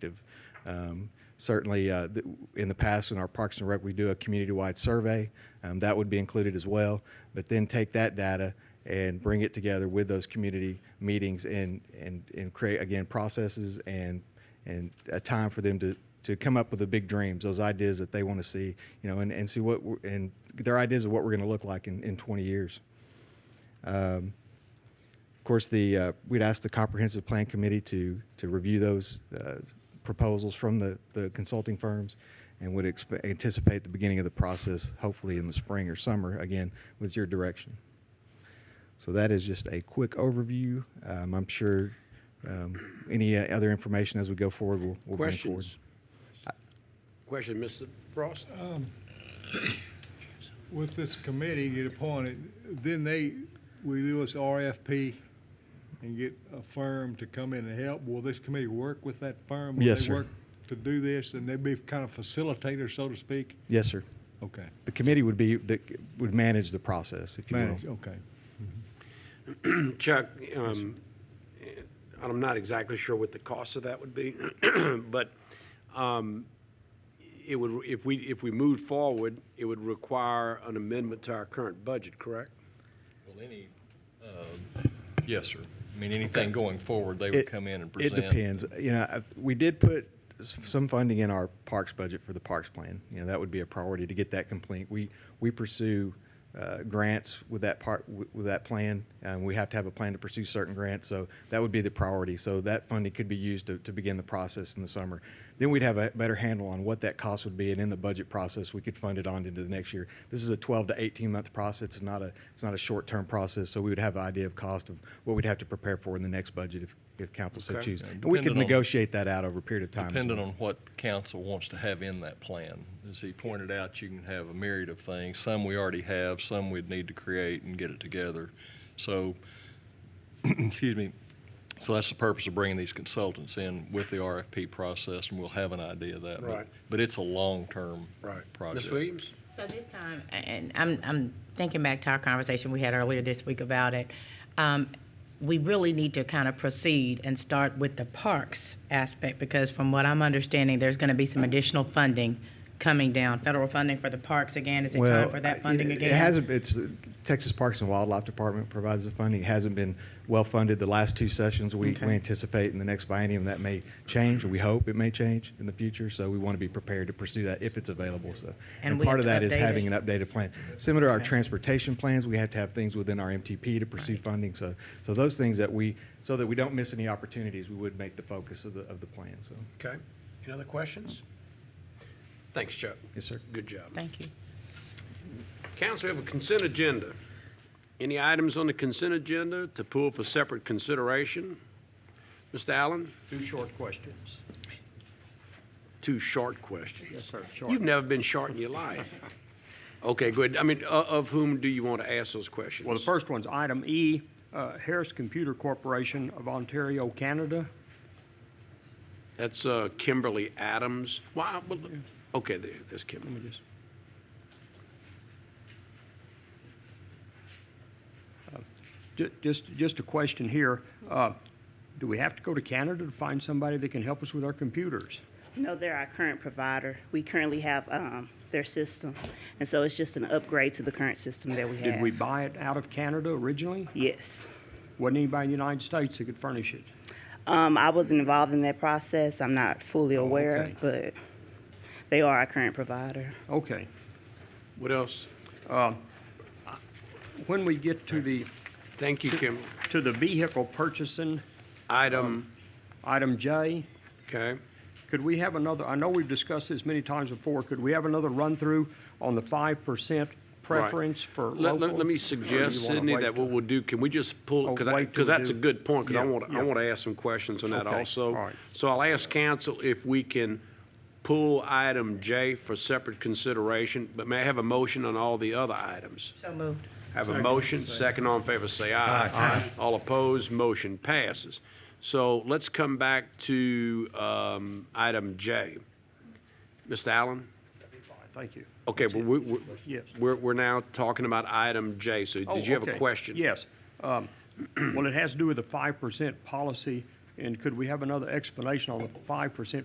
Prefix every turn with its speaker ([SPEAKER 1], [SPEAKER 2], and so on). [SPEAKER 1] active. Um, certainly, uh, th- in the past, in our Parks and Rec, we do a community-wide survey. Um, that would be included as well. But then take that data and bring it together with those community meetings and and and create again processes and and a time for them to to come up with the big dreams, those ideas that they want to see, you know, and, and see what we're, and their ideas of what we're going to look like in, in 20 years. Um, of course, the uh, we'd ask the comprehensive plan committee to to review those uh, proposals from the, the consulting firms, and would expe- anticipate the beginning of the process, hopefully in the spring or summer, again with your direction. So that is just a quick overview. Um, I'm sure um, any uh, other information as we go forward will will bring forward.
[SPEAKER 2] Questions? Question, Mr. Frost?
[SPEAKER 3] With this committee get appointed, then they, we do this RFP and get a firm to come in and help. Will this committee work with that firm? Will
[SPEAKER 1] Yes,
[SPEAKER 3] they
[SPEAKER 1] sir.
[SPEAKER 3] work To do this, and they'd be kind of facilitator, so to speak?
[SPEAKER 1] Yes, sir.
[SPEAKER 3] Okay.
[SPEAKER 1] The committee would be that would manage the process, if you will.
[SPEAKER 3] Manage, okay.
[SPEAKER 2] Mm, Chuck, um, eh, I'm not exactly sure what the cost of that would be, but um, it would, if we, if we moved forward, it would require an amendment to our current budget, correct?
[SPEAKER 4] Well, any, um, yes, sir. I mean, anything going forward, they would
[SPEAKER 1] It-
[SPEAKER 4] come in and present.
[SPEAKER 1] It depends. You know, I- we did put s- some funding in our parks budget for the parks plan. You know, that would be a priority to get that complete. We, we pursue uh, grants with that part, with with that plan, and we have to have a plan to pursue certain grants, so that would be the priority. So that funding could be used to, to begin the process in the summer. Then we'd have a better handle on what that cost would be, and in the budget process, we could fund it on into the next year. This is a 12 to 18-month process. It's not a, it's not a short-term process, so we would have an idea of cost of what we'd have to prepare for in the next budget if, if council so
[SPEAKER 2] Okay.
[SPEAKER 1] choose.
[SPEAKER 4] Yeah,
[SPEAKER 1] And we could
[SPEAKER 4] depending on-
[SPEAKER 1] negotiate that out over a period of time. as
[SPEAKER 4] Depending
[SPEAKER 1] well.
[SPEAKER 4] on what council wants to have in that plan. As he pointed out, you can have a myriad of things. Some we already have, some we'd need to create and get it together. So, excuse me, so that's the purpose of bringing these consultants in with the RFP process, and we'll have an idea of that. But-
[SPEAKER 2] Right.
[SPEAKER 4] But it's a long-term project.
[SPEAKER 2] Ms. Williams?
[SPEAKER 5] So this time, and I'm, I'm thinking back to our conversation we had earlier this week about it, um, we really need to kind of proceed and start with the parks aspect because from what I'm understanding, there's going to be some additional funding coming down, federal funding for the parks again. Is it
[SPEAKER 1] Well,
[SPEAKER 5] time for that funding
[SPEAKER 1] it-
[SPEAKER 5] again?
[SPEAKER 1] It hasn't, it's, Texas Parks and Wildlife Department provides the funding. It hasn't been well-funded the last two sessions. We,
[SPEAKER 5] Okay.
[SPEAKER 1] we anticipate in the next biennium that may change, or we hope it may change in the future. So we want to be prepared to pursue that if it's available, so.
[SPEAKER 5] And
[SPEAKER 1] And
[SPEAKER 5] we
[SPEAKER 1] part of
[SPEAKER 5] have to
[SPEAKER 1] that is
[SPEAKER 5] update
[SPEAKER 1] having
[SPEAKER 5] it?
[SPEAKER 1] an updated plan. Similar to our
[SPEAKER 5] Okay.
[SPEAKER 1] transportation plans, we have to have things within our MTP to pursue funding. So, so those things that we, so that we don't miss any opportunities, we would make the focus of the, of the plan, so.
[SPEAKER 2] Okay. Any other questions? Thanks, Chuck.
[SPEAKER 1] Yes, sir.
[SPEAKER 2] Good job.
[SPEAKER 5] Thank you.
[SPEAKER 2] Council, we have a consent agenda. Any items on the consent agenda to pull for separate consideration? Mr. Allen? Two short questions. Two short questions? Yes, sir. You've never been short in your life. Okay, good. I mean, o- of whom do you want to ask those questions?
[SPEAKER 6] Well, the first one's item E, uh, Harris Computer Corporation of Ontario, Canada.
[SPEAKER 2] That's uh, Kimberly Adams. Why, well, okay, there- there's Kimberly.
[SPEAKER 6] Let me just- Uh, ju- Just, just a question here. Uh, Do we have to go to Canada to find somebody that can help us with our computers?
[SPEAKER 7] No, they're our current provider. We currently have um, their system, and so it's just an upgrade to the current system that we have.
[SPEAKER 6] Did we buy it out of Canada originally?
[SPEAKER 7] Yes.
[SPEAKER 6] Wasn't anybody in the United States that could furnish it?
[SPEAKER 7] Um, I wasn't involved in that process. I'm not fully aware,
[SPEAKER 6] Oh, okay.
[SPEAKER 7] but they are our current provider.
[SPEAKER 6] Okay.
[SPEAKER 2] What else?
[SPEAKER 6] When we get to the,
[SPEAKER 2] Thank you, Kimberly.
[SPEAKER 6] to the vehicle purchasing,
[SPEAKER 2] Item,
[SPEAKER 6] item J,
[SPEAKER 2] okay.
[SPEAKER 6] Could we have another, I know we've discussed this many times before, could we have another run-through on the five percent
[SPEAKER 2] Right.
[SPEAKER 6] preference for
[SPEAKER 2] Let-
[SPEAKER 6] local?
[SPEAKER 2] Let, let me
[SPEAKER 6] Or do you
[SPEAKER 2] suggest,
[SPEAKER 6] wanna
[SPEAKER 2] Sydney,
[SPEAKER 6] wait
[SPEAKER 2] that what
[SPEAKER 6] till-
[SPEAKER 2] we'll do, can we just pull,
[SPEAKER 6] Oh,
[SPEAKER 2] because I,
[SPEAKER 6] wait
[SPEAKER 2] because
[SPEAKER 6] till we
[SPEAKER 2] that's a
[SPEAKER 6] do-
[SPEAKER 2] good point, because I
[SPEAKER 6] Yeah,
[SPEAKER 2] want, to I
[SPEAKER 6] yeah.
[SPEAKER 2] want to ask some questions on that
[SPEAKER 6] Okay,
[SPEAKER 2] also.
[SPEAKER 6] all right.
[SPEAKER 2] So I'll ask council if we can pull item J for separate consideration, but may I have a motion on all the other items?
[SPEAKER 5] So moved.
[SPEAKER 2] Have a motion, second all in favor, say aye. Aye. All opposed, motion passes. So let's come back to um, item J. Mr. Allen?
[SPEAKER 6] Thank you.
[SPEAKER 2] Okay, but we, we-
[SPEAKER 6] Yes.
[SPEAKER 2] we're, we're now talking about item J, so
[SPEAKER 6] Oh,
[SPEAKER 2] did you have a
[SPEAKER 6] okay.
[SPEAKER 2] question?
[SPEAKER 6] Yes. Um, Well, it has to do with the five percent policy, and could we have another explanation on the five percent